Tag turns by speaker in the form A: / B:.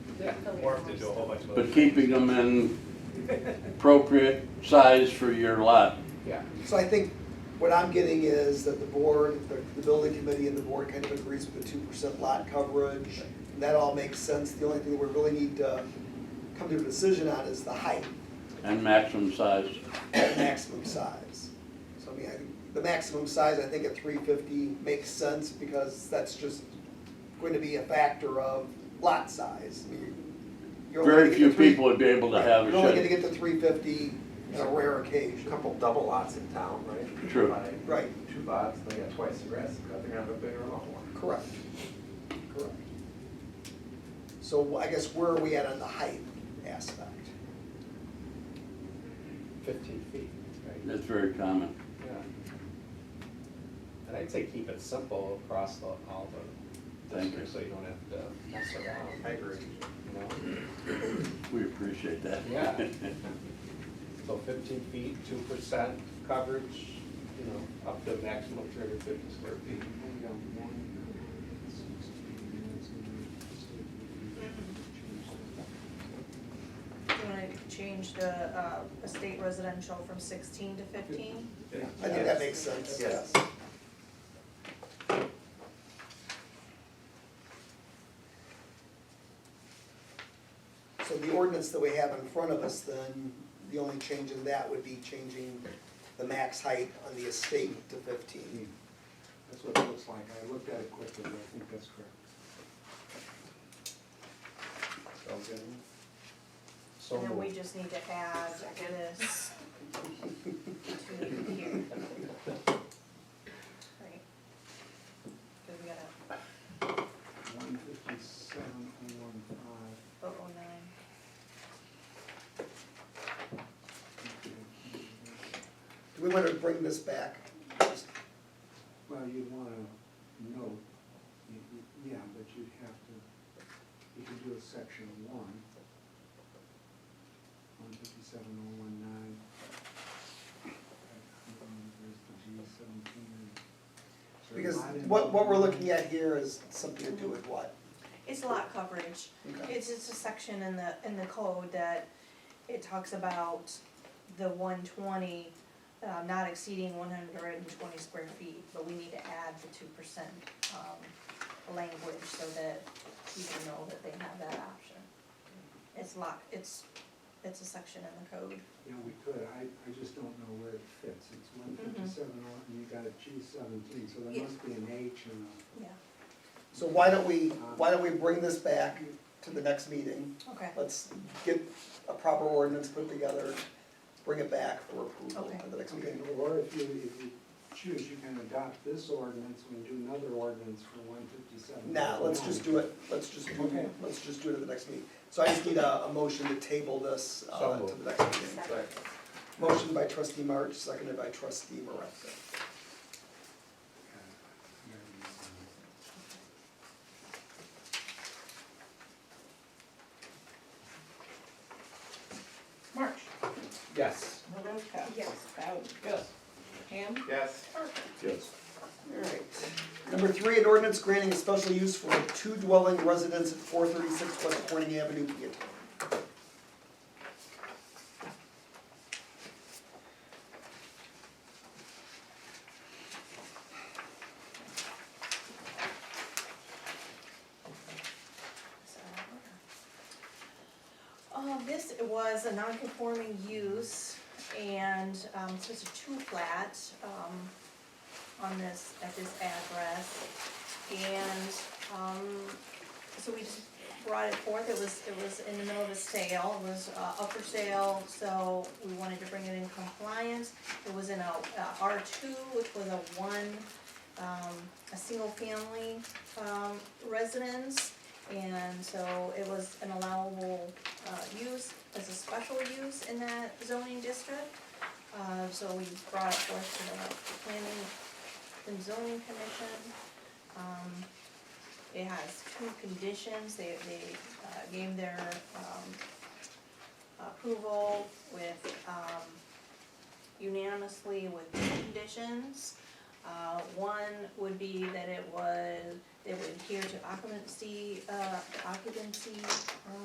A: Yeah, morphed into a whole bunch of other
B: but keeping them in appropriate size for your lot.
A: Yeah,
C: So I think what I'm getting is that the board, the, the building committee and the board kind of agrees with the two percent lot coverage. And that all makes sense. The only thing we really need to come to a decision on is the height
B: And maximum size.
C: and maximum size. So I mean, I think the maximum size, I think at three fifty makes sense because that's just going to be a factor of lot size. I mean, you're only
B: Very
C: gonna
B: few
C: get three-
B: people would be able to have a
C: You're only gonna
B: shed.
C: get to three fifty on a rare occasion.
D: Couple double lots in town, right?
B: True.
D: Buy
C: Right.
D: Two lots, they got twice the grass, they're gonna have a bigger lot more.
C: Correct, correct. So I guess where are we at on the height aspect?
A: fifteen feet, right?
B: That's very common.
A: Yeah. And I'd say keep it simple across the, all the
B: Thank you.
A: districts, so you don't have to mess around.
D: I agree.
A: You know,
B: We appreciate that.
A: Yeah. so fifteen feet, two percent coverage, you know, up to a maximum of three hundred fifty square feet.
E: Do you wanna change the, uh, estate residential from sixteen to fifteen?
C: I think that makes sense, yes.
D: Yes.
C: So the ordinance that we have in front of us, then, the only change in that would be changing the max height on the estate to fifteen.
F: That's what it looks like. I looked at it quickly, but I think that's correct.
A: Sounds good. So
E: And then we
A: moved.
E: just need to add this to here. Right. Cause we gotta,
F: One fifty-seven and one five.
E: oh, oh, nine,
C: Do we want to bring this back?
F: Well, you'd wanna note, y- y- yeah, but you'd have to, you could do a section one. One fifty-seven oh one nine. There's the G seventeen.
C: Because what, what we're looking at here is something to do with what?
E: it's lot coverage.
C: Okay.
E: It's just a section in the, in the code that it talks about the one twenty, um, not exceeding one hundred and twenty square feet, but we need to add the two percent, um, language so that people know that they have that option. It's lock, it's, it's a section in the code.
F: Yeah, we could, I, I just don't know where it fits, it's one fifty-seven, oh, and you got a G seventeen, so there
E: Yeah.
F: must be an H and a.
E: Yeah.
C: So why don't we, why don't we bring this back to the next meeting?
E: Okay,
C: Let's get a proper ordinance put together, bring it back for approval
E: Okay.
C: at the next meeting.
F: Or if you, if you choose, you can adopt this ordinance and do another ordinance for one fifty-seven.
C: Nah, let's just do it, let's just do,
F: Okay.
C: let's just do it at the next meeting. So I just need a, a motion to table this, uh,
A: So
C: to the next meeting.
A: Right.
C: Motion by trustee March, seconded by trustee Moravka.
G: March,
A: Yes.
G: Maravka.
E: Yes.
G: Bowden,
A: Yes.
G: Ham,
D: Yes.
G: Parker.
B: Yes.
C: Alright. Number three, an ordinance granting a special use for a two dwelling residence at four thirty-six West Corning Avenue, Peatone.
E: Um, this was a non-conforming use and, um, so it's a two flat, um, on this, at this address. And, um, so we just brought it forth, it was, it was in the middle of a sale, it was, uh, up for sale, so we wanted to bring it in compliance. It was in a, uh, R two, which was a one, um, a single family, um, residence. And so it was an allowable, uh, use as a special use in that zoning district. Uh, so we brought it forth to the planning and zoning commission. Um, it has two conditions, they, they, uh, gave their, um, approval with, um, unanimously with two conditions. Uh, one would be that it was, they would adhere to occupancy, uh, occupancy, um,